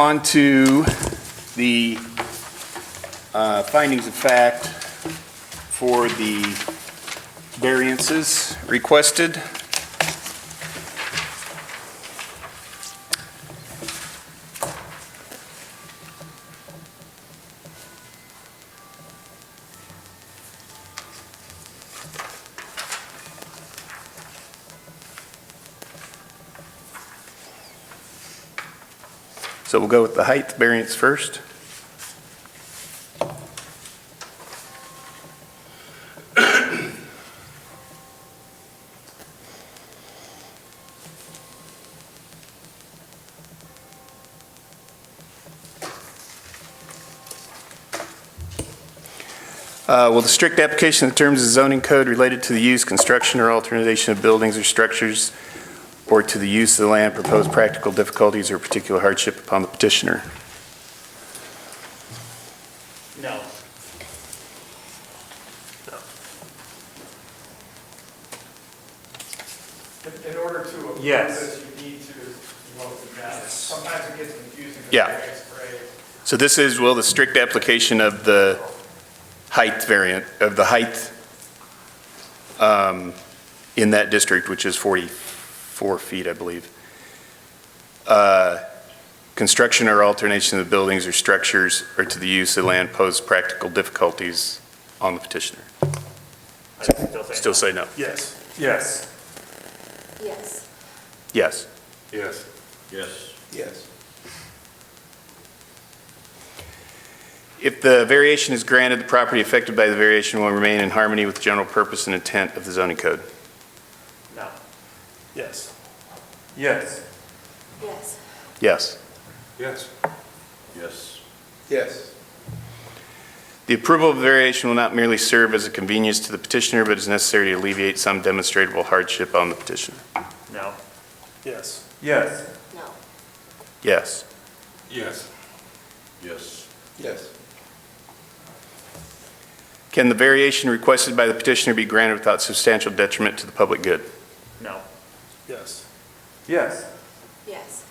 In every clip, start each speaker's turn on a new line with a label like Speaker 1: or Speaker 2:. Speaker 1: On to the uh, findings of fact for the variances requested. So we'll go with the height variance first. Uh, Will the strict application of the terms of zoning code related to the use, construction, or alternation of buildings or structures or to the use of the land propose practical difficulties or particular hardship upon the petitioner?
Speaker 2: No.
Speaker 3: In in order to approve
Speaker 2: Yes.
Speaker 3: this, you need to vote the matter. Sometimes it gets confusing. 'cause
Speaker 1: Yeah.
Speaker 3: variance grades.
Speaker 1: So this is, will the strict application of the height variant, of the height um, in that district, which is 44 feet, I believe, uh, construction or alternation of buildings or structures or to the use of land pose practical difficulties on the petitioner?
Speaker 2: I still say
Speaker 1: Still say no?
Speaker 2: Yes. Yes.
Speaker 4: Yes.
Speaker 1: Yes.
Speaker 2: Yes.
Speaker 5: Yes.
Speaker 1: Yes. If the variation is granted, the property affected by the variation will remain in harmony with the general purpose and intent of the zoning code.
Speaker 2: No. Yes. Yes.
Speaker 4: Yes.
Speaker 1: Yes.
Speaker 2: Yes.
Speaker 5: Yes.
Speaker 2: Yes.
Speaker 1: The approval of the variation will not merely serve as a convenience to the petitioner, but is necessary to alleviate some demonstrable hardship on the petitioner.
Speaker 2: No. Yes. Yes.
Speaker 4: No.
Speaker 1: Yes.
Speaker 2: Yes.
Speaker 5: Yes.
Speaker 2: Yes.
Speaker 1: Can the variation requested by the petitioner be granted without substantial detriment to the public good?
Speaker 2: No. Yes. Yes.
Speaker 4: Yes.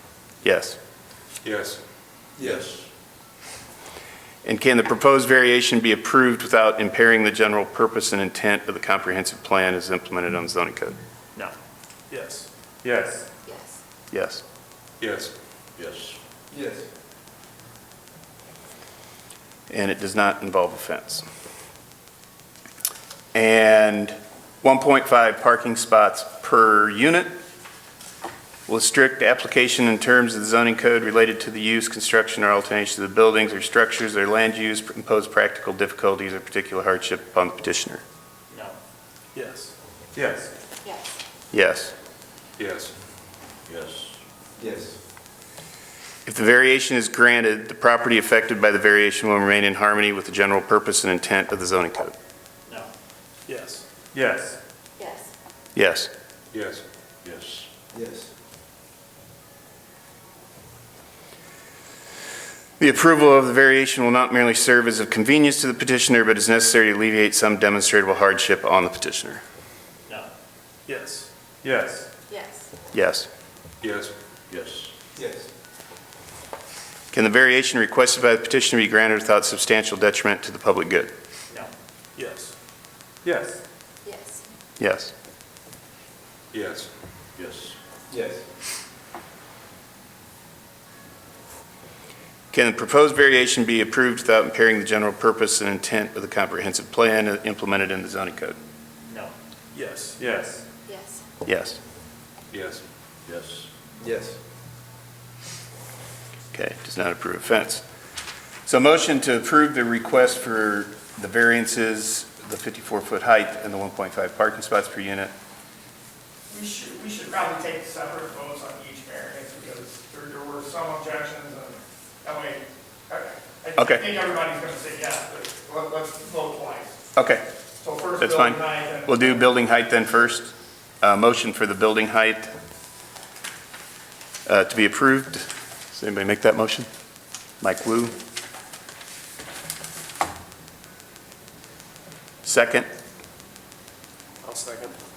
Speaker 1: Yes.
Speaker 2: Yes.
Speaker 5: Yes.
Speaker 1: And can the proposed variation be approved without impairing the general purpose and intent of the comprehensive plan as implemented on the zoning code?
Speaker 2: No. Yes. Yes.
Speaker 4: Yes.
Speaker 1: Yes.
Speaker 2: Yes.
Speaker 5: Yes.
Speaker 2: Yes.
Speaker 1: And it does not involve a fence. And 1.5 parking spots per unit will strict application in terms of the zoning code related to the use, construction, or alternation of the buildings or structures or land use impose practical difficulties or particular hardship upon the petitioner.
Speaker 2: No. Yes. Yes.
Speaker 4: Yes.
Speaker 1: Yes.
Speaker 2: Yes.
Speaker 5: Yes.
Speaker 2: Yes.
Speaker 1: If the variation is granted, the property affected by the variation will remain in harmony with the general purpose and intent of the zoning code.
Speaker 2: No. Yes. Yes.
Speaker 4: Yes.
Speaker 1: Yes.
Speaker 2: Yes.
Speaker 5: Yes.
Speaker 2: Yes.
Speaker 1: The approval of the variation will not merely serve as a convenience to the petitioner, but is necessary to alleviate some demonstrable hardship on the petitioner.
Speaker 2: No. Yes. Yes.
Speaker 4: Yes.
Speaker 1: Yes.
Speaker 2: Yes.
Speaker 5: Yes.
Speaker 2: Yes.
Speaker 1: Can the variation requested by the petitioner be granted without substantial detriment to the public good?
Speaker 2: No. Yes. Yes.
Speaker 4: Yes.
Speaker 1: Yes.
Speaker 2: Yes.
Speaker 5: Yes.
Speaker 2: Yes.
Speaker 1: Can the proposed variation be approved without impairing the general purpose and intent of the comprehensive plan implemented in the zoning code?
Speaker 2: No. Yes. Yes.
Speaker 4: Yes.
Speaker 1: Yes.
Speaker 2: Yes.
Speaker 5: Yes.
Speaker 2: Yes.
Speaker 1: Okay, does not approve of fence. So motion to approve the request for the variances, the 54-foot height and the 1.5 parking spots per unit.
Speaker 3: We should, we should probably take separate votes on each variance because there, there were some objections and that way, I, I
Speaker 1: Okay.
Speaker 3: think everybody's going to say yes, but let- let's vote twice.
Speaker 1: Okay,
Speaker 3: So first
Speaker 1: That's
Speaker 3: Bill
Speaker 1: fine.
Speaker 3: and I, then.
Speaker 1: we'll do building height then first. Uh, Motion for the building height uh, to be approved. Does anybody make that motion? Mike Wu? Second?
Speaker 2: I'll second.